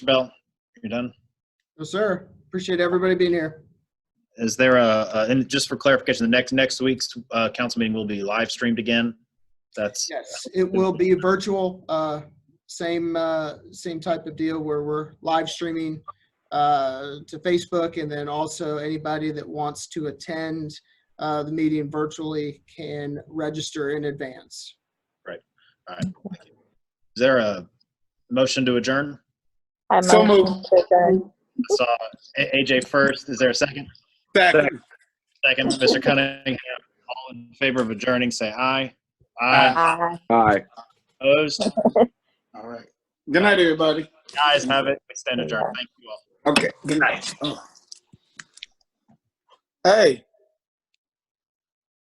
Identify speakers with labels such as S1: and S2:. S1: Bell, you're done.
S2: Yes, sir. Appreciate everybody being here.
S1: Is there a, a- and just for clarification, the next, next week's uh, council meeting will be live streamed again? That's,
S2: Yes, it will be virtual, uh, same, uh, same type of deal where we're live streaming uh, to Facebook and then also anybody that wants to attend uh, the meeting virtually can register in advance.
S1: all right. Thank you. Is there a motion to adjourn?
S3: I
S4: So
S3: motion to adjourn.
S1: Saw A- AJ first. Is there a second?
S4: Second.
S1: Second, Mr. Cunningham. All in favor of adjourning, say aye. Aye.
S3: Aye.
S5: Aye.
S1: Opposed?
S4: All right. Good night, everybody.
S1: Guys have it. We stand adjourned. Thank you all.
S4: Okay, good night. Oh. Hey.